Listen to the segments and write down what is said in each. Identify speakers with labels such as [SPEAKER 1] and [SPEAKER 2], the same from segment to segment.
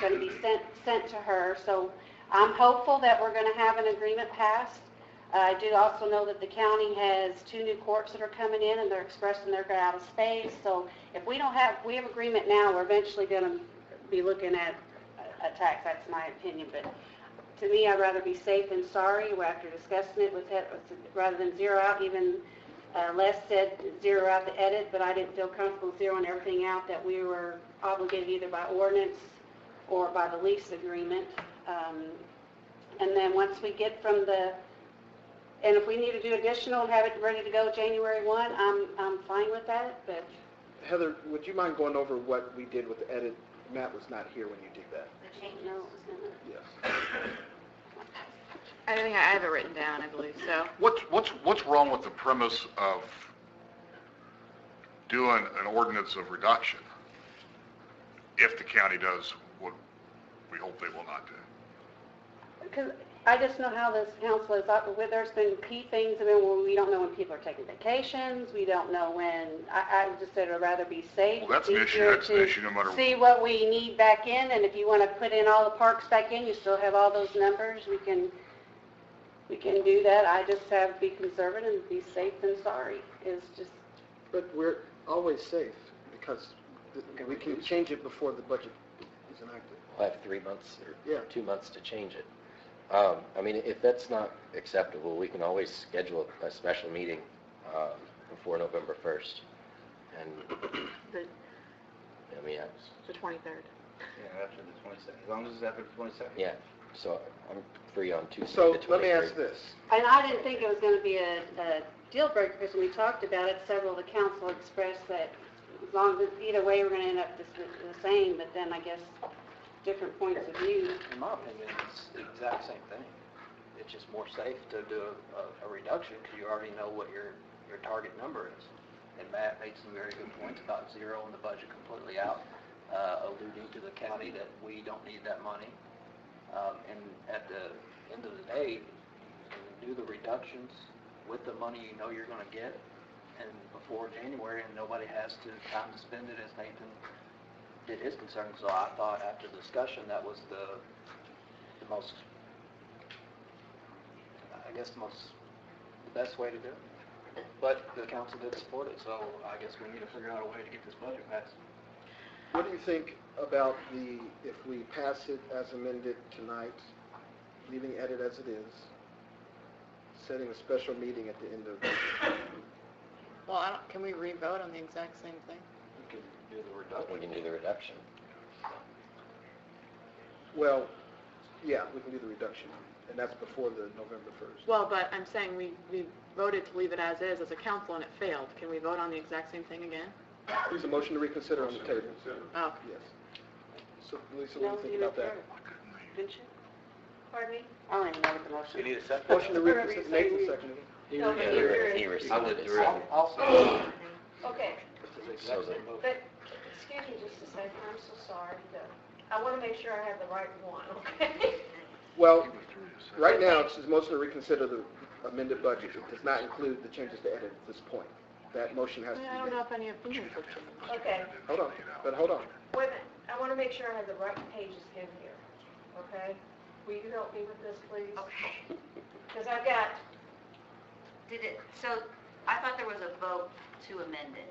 [SPEAKER 1] gonna be sent, sent to her, so I'm hopeful that we're gonna have an agreement passed. I do also know that the county has two new courts that are coming in, and they're expressing they're out of space, so if we don't have, we have agreement now, we're eventually gonna be looking at a- a tax, that's my opinion, but to me, I'd rather be safe than sorry, We're after discussing it with, it- with- rather than zero out, even uh, Les said zero out the edit, but I didn't feel comfortable zeroing everything out that we were obligated either by ordinance or by the lease agreement. Um, And then once we get from the, and if we need to do additional and have it ready to go January 1, I'm, I'm fine with that, but
[SPEAKER 2] Heather, would you mind going over what we did with the edit? Matt was not here when you did that.
[SPEAKER 1] I don't know.
[SPEAKER 2] Yes.
[SPEAKER 3] I think I have it written down, I believe, so.
[SPEAKER 4] What's, what's, what's wrong with the premise of doing an ordinance of reduction if the county does what we hope they will not do?
[SPEAKER 1] Because I just know how this council is, up- where there's been key things, I mean, well, we don't know when people are taking vacations, we don't know when, I, I just said I'd rather be safe.
[SPEAKER 4] Well, that's an
[SPEAKER 1] be
[SPEAKER 4] issue,
[SPEAKER 1] sure
[SPEAKER 4] that's an
[SPEAKER 1] to
[SPEAKER 4] issue no matter-
[SPEAKER 1] See what we need back in, and if you want to put in all the parks back in, you still have all those numbers, we can, we can do that. I just have, be conservative and be safe than sorry, is just,
[SPEAKER 2] But we're always safe because th- we can change it before the budget is enacted.
[SPEAKER 5] We'll have three months
[SPEAKER 2] Yeah.
[SPEAKER 5] or two months to change it. Um, I mean, if that's not acceptable, we can always schedule a special meeting um, before November 1st. And,
[SPEAKER 3] The,
[SPEAKER 5] I mean, I-
[SPEAKER 3] the 23rd.
[SPEAKER 6] Yeah, after the 22nd, as long as it's after the 22nd.
[SPEAKER 5] yeah, so I'm free on Tuesday, the
[SPEAKER 2] So
[SPEAKER 5] 23rd.
[SPEAKER 2] let me ask this.
[SPEAKER 1] and I didn't think it was going to be a, a deal breaker, because when we talked about it, several of the council expressed that as long as, either way, we're gonna end up the, s- the same, but then I guess different points of view.
[SPEAKER 6] In my opinion, it's the exact same thing. It's just more safe to do a- a, a reduction because you already know what your, your target number is. And Matt made some very good points about zeroing the budget completely out, uh, alluding to the county that we don't need that money. Um, and at the end of the day, you can do the reductions with the money you know you're gonna get and before January and nobody has to time to spend it as Nathan did his concern. So I thought after discussion, that was the, the most, I guess, the most, the best way to do it. But the council did support it, so I guess we need to figure out a way to get this budget passed.
[SPEAKER 2] What do you think about the, if we pass it as amended tonight, leaving edit as it is, setting a special meeting at the end of,
[SPEAKER 3] Well, I don't, can we re-vote on the exact same thing?
[SPEAKER 6] We could do the
[SPEAKER 5] We can
[SPEAKER 6] reduction.
[SPEAKER 5] do the reduction.
[SPEAKER 2] well, yeah, we can do the reduction, and that's before the November 1st.
[SPEAKER 3] Well, but I'm saying we, we voted to leave it as is as a council and it failed. Can we vote on the exact same thing again?
[SPEAKER 2] There's a motion to reconsider on the table.
[SPEAKER 3] Oh,
[SPEAKER 2] Yes. So Lisa, what do you think about that?
[SPEAKER 1] Didn't you? Pardon me? I don't even know what the motion is.
[SPEAKER 6] need a second?
[SPEAKER 2] Motion to reconsider, Nathan seconded.
[SPEAKER 5] Yeah, he re- He rescinded it.
[SPEAKER 6] I'll, I'll second.
[SPEAKER 7] Okay,
[SPEAKER 6] It's the exact same motion.
[SPEAKER 7] but, excuse me just a second, I'm so sorry, but I want to make sure I have the right one, okay?
[SPEAKER 2] Well, right now, it's just motion to reconsider the amended budget. It does not include the changes to edit at this point. That motion
[SPEAKER 3] I
[SPEAKER 2] has to
[SPEAKER 3] mean,
[SPEAKER 2] be
[SPEAKER 3] I don't
[SPEAKER 2] made.
[SPEAKER 3] know if any of these are changed.
[SPEAKER 7] Okay,
[SPEAKER 2] Hold on, but hold on.
[SPEAKER 7] wait a minute, I want to make sure I have the right pages in here, okay? Will you help me with this, please? Okay. Because I've got,
[SPEAKER 8] Did it, so I thought there was a vote to amend it,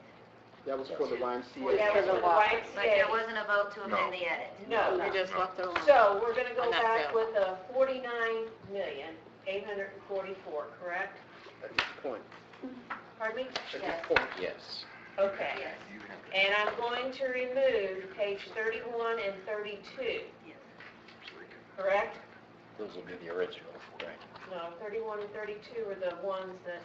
[SPEAKER 2] That was for the
[SPEAKER 7] that
[SPEAKER 2] YMCA.
[SPEAKER 7] was the right
[SPEAKER 8] but there
[SPEAKER 7] state.
[SPEAKER 8] wasn't a vote to amend
[SPEAKER 4] No.
[SPEAKER 8] the edit.
[SPEAKER 1] Oh,
[SPEAKER 7] No.
[SPEAKER 3] We just left it alone.
[SPEAKER 7] So we're going to go
[SPEAKER 3] And that's
[SPEAKER 7] back
[SPEAKER 3] it.
[SPEAKER 7] with a forty-nine million, eight hundred and forty-four, correct?
[SPEAKER 2] At this point,
[SPEAKER 7] Pardon me?
[SPEAKER 2] at this point.
[SPEAKER 5] Yes.
[SPEAKER 7] Okay.
[SPEAKER 8] Yes,
[SPEAKER 7] And I'm going to remove page 31 and 32,
[SPEAKER 8] yes.
[SPEAKER 7] correct?
[SPEAKER 5] Those will be the original, right?
[SPEAKER 7] No, 31 and 32 are the ones that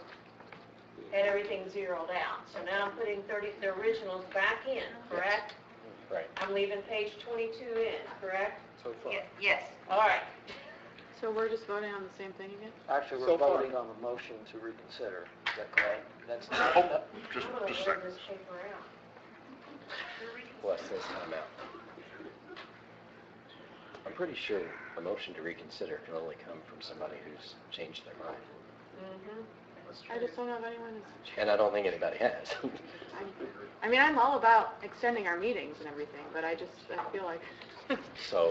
[SPEAKER 7] had everything zeroed out. So now I'm putting 30, the originals back in, correct?
[SPEAKER 5] Right.
[SPEAKER 7] I'm leaving page 22 in, correct?
[SPEAKER 2] So far.
[SPEAKER 8] Ye- Yes,
[SPEAKER 7] All right.
[SPEAKER 3] So we're just voting on the same thing again?
[SPEAKER 6] Actually,
[SPEAKER 2] So
[SPEAKER 6] we're
[SPEAKER 2] far.
[SPEAKER 6] voting on the motion to reconsider. Is that correct? That's not.
[SPEAKER 4] Oh, just,
[SPEAKER 7] I'm going
[SPEAKER 4] just
[SPEAKER 7] to
[SPEAKER 4] a second.
[SPEAKER 7] burn this paper out.
[SPEAKER 5] Plus this time out. I'm pretty sure a motion to reconsider can only come from somebody who's changed their mind.
[SPEAKER 1] Mm-hmm.
[SPEAKER 7] Mhm.
[SPEAKER 3] I just don't know if anyone is,
[SPEAKER 5] And I don't think anybody has.
[SPEAKER 3] I mean, I'm all about extending our meetings and everything, but I just, I feel like
[SPEAKER 5] So